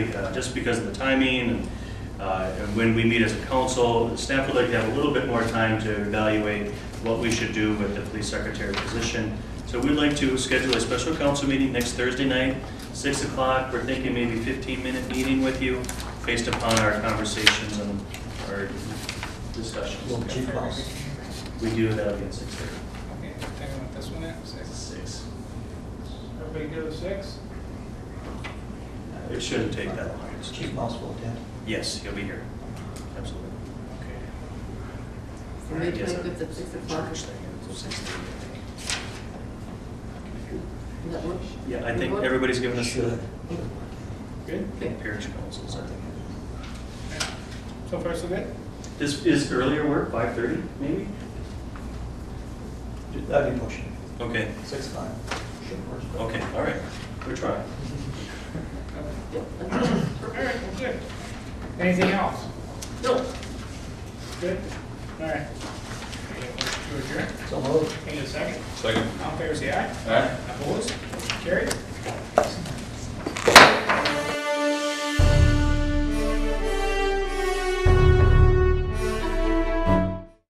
tonight, uh, just because of the timing and, uh, and when we meet as a council. Staff would like to have a little bit more time to evaluate what we should do with the police secretary position. So we'd like to schedule a special council meeting next Thursday night, 6 o'clock. We're thinking maybe 15-minute meeting with you based upon our conversations and our discussions. Little cheap house. We do that'll be at 6:30. Okay, take on this one at six. Six. Everybody go to six? It shouldn't take that long. Chief Mouse will attend. Yes, he'll be here. Absolutely. Okay. So May 25th at 6 o'clock, Church thing, it's six thirty, I think. does that work? Yeah, I think everybody's given us the Should. Good? parish councils, I think. So far, so good? This is earlier work, five thirty, maybe? That'd be motion. Okay, Six five. Should work. okay, all right, we're trying. Yep. All right, well, good. Anything else? No, Good? All right. Okay, motion To adjourn, So moved. any second? Second. All in favor, say aye. All right. Opposed? Carried?